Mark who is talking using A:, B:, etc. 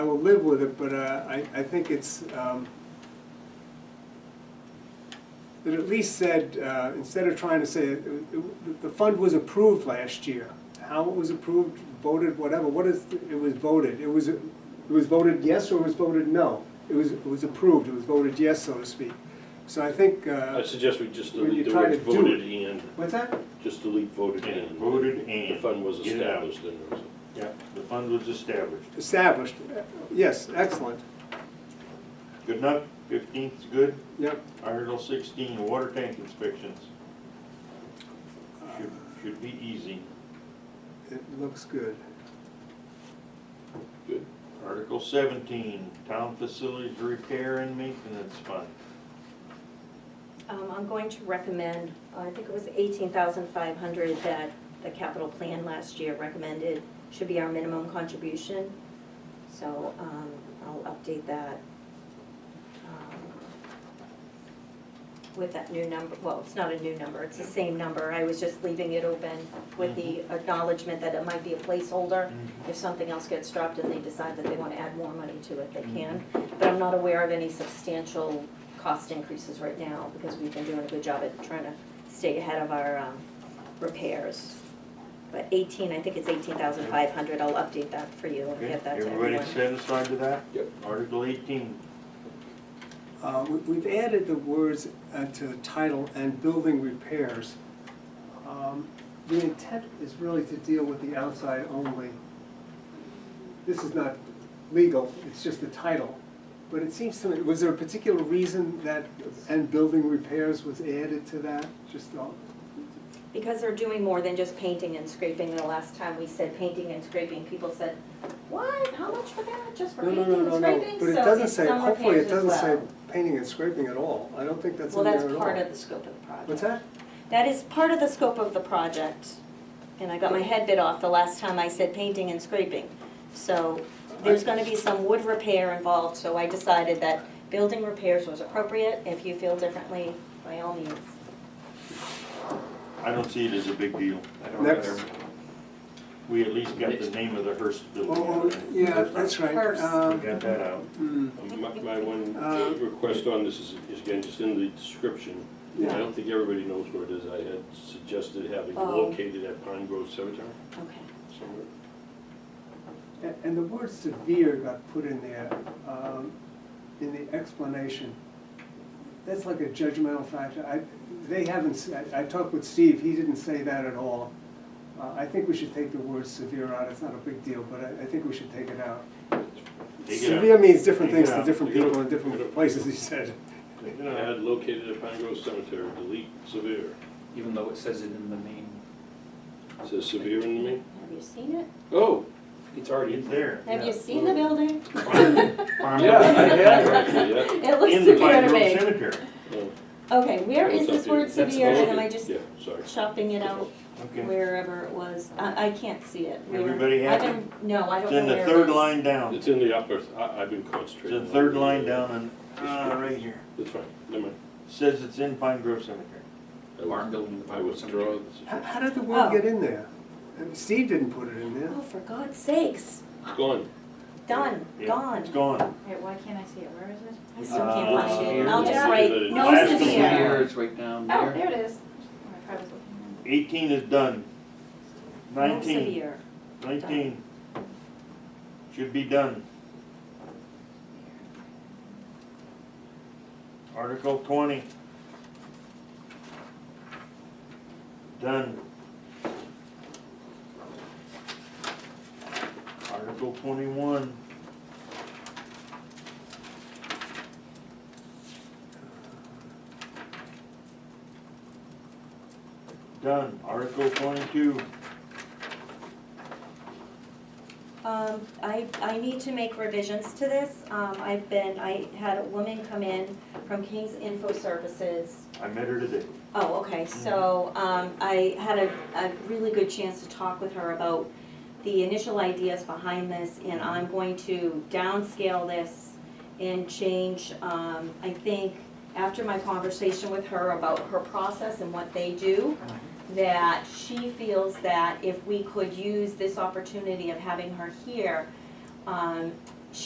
A: I will live with it, but uh, I, I think it's, um, it at least said, uh, instead of trying to say, it- it- the fund was approved last year. How it was approved, voted, whatever, what is, it was voted, it was, it was voted yes or it was voted no? It was, it was approved, it was voted yes, so to speak. So I think,
B: I
A: uh,
B: suggest we just
A: When you
B: delete the
A: try
B: words
A: to do
B: voted and,
A: what's that?
B: just delete voted and.
C: Voted
B: The
C: and.
B: fund was
C: Get it out.
B: established and there was a-
C: Yeah, the fund was established.
A: Established, yes, excellent,
C: Good enough, fifteenth's good.
A: yep.
C: Article sixteen, water tank inspections. Should, should be easy.
A: It looks good.
B: good.
C: Article seventeen, town facilities repair and maintenance fund.
D: Um, I'm going to recommend, uh, I think it was eighteen thousand five hundred that the capital plan last year recommended should be our minimum contribution. So, um, I'll update that. um, With that new number, well, it's not a new number, it's the same number, I was just leaving it open with the
C: Mm-hmm.
D: acknowledgement that it might be a placeholder. If something else gets dropped and they decide that they wanna add more money to it, they can.
C: Mm-hmm.
D: But I'm not aware of any substantial cost increases right now because we've been doing a good job at trying to stay ahead of our um, repairs. But 18, I think it's 18,500, I'll update that for you and
C: Okay,
D: get that to
C: everybody
D: everyone.
C: satisfied with that?
B: Yep.
C: Article eighteen,
A: Uh, we- We've added the words uh, to the title and building repairs. Um, The intent is really to deal with the outside only. This is not legal, it's just the title. But it seems to me, was there a particular reason that and building repairs was added to that? Just, uh,
D: Because they're doing more than just painting and scraping, the last time we said painting and scraping, people said, what, how much for that, just for
A: no,
D: painting
A: no, no,
D: and
A: no,
D: scraping?
A: no. But it
D: So
A: doesn't
D: it's
A: say,
D: some
A: hopefully it
D: repairs as
A: doesn't say
D: well.
A: painting and scraping at all. I don't think that's
D: Well,
A: in there at
D: that's
A: all.
D: part of the scope of the project.
A: What's that?
D: That is part of the scope of the project, and I got my head bit off the last time I said painting and scraping. So there's gonna be some wood repair involved, so I decided that building repairs was appropriate. If you feel differently, by all means.
C: I don't see it as a big deal.
B: Um,
A: Next.
C: We at least got the name of the Hearst
A: Oh,
C: building.
A: oh, yeah, that's right.
D: First.
C: We
A: Um,
C: got that out.
A: hmm,
B: My, my one
A: Uh,
B: request on this is, is again, just in the description, I
A: Yeah.
B: don't think everybody knows where it is. I had suggested having
D: Oh.
B: located at Pine Grove Cemetery
D: Okay.
B: somewhere.
A: And- And the word severe got put in there, um, in the explanation. That's like a judgmental factor. I, they haven't, s- I- I talked with Steve, he didn't say that at all. Uh, I think we should take the word severe out, it's not a big deal, but I, I think we should take it out.
C: Take it out.
A: Severe means different
C: Take it
A: things to
C: out.
A: different
B: Take it
A: people in
B: out. Take it
A: different
B: out.
A: places, he said.
B: Then I had located at Pine Grove Cemetery, delete severe.
E: even though it says it in the main.
B: It Says severe in the main?
D: Have you seen it?
B: Oh, it's already
C: It's there.
D: Have you seen the building?
B: Yeah, I had, actually, yeah.
D: It looks
C: In the
D: severe
C: Pine
D: to
C: Grove
D: me.
C: Cemetery.
B: Oh,
D: Okay, where is
B: it's
D: this
B: updated.
D: word
B: That's
D: severe, and am I
B: updated.
D: just
B: Yeah, sorry.
D: chopping it out
C: Okay.
D: wherever it was? I, I can't see it. Where-
C: Everybody
D: I
C: happy?
D: don't- No, I don't
C: It's
D: know
C: in the
D: where it
C: third
D: is.
C: line down.
B: It's in the upper, I, I've been
C: It's
B: concentrating.
C: in the
B: on-
C: third line down and,
B: Ah,
C: right here.
B: That's fine, never mind.
C: Says it's in Pine Grove Cemetery.
B: I will-
E: Barn building in the
B: I
E: Pine Grove
B: withdraw.
E: Cemetery.
A: How,
B: this.
A: how did the
D: Oh.
A: word get in there? Uh, Steve didn't put it in there.
D: Oh, for God's sakes,
B: It's gone.
D: done,
C: Yeah,
D: gone.
C: It's gone.
F: Wait, why can't I see it? Where is it?
D: I still can't
C: Uh,
D: find it. I'll just
B: yeah.
D: write, no
F: Last
E: It's
F: severe.
D: severe.
E: It's right down
F: Oh,
E: there.
F: there it is. Oh, I probably was looking
C: Eighteen is done.
D: No
C: Nineteen.
D: severe.
C: Nineteen. Should be done. Article twenty. Done. Article twenty-one. Done. Article twenty-two.
D: Um, I, I need to make revisions to this. Um, I've been, I had a woman come in from King's Info Services
C: I met her today.
D: Oh, okay, so, um, I had a, a really good chance to talk with her about the initial ideas behind this, and I'm going to downscale this and change, um, I think, after my conversation with her about her process and what they do, that she feels that if we could use this opportunity of having her here, um,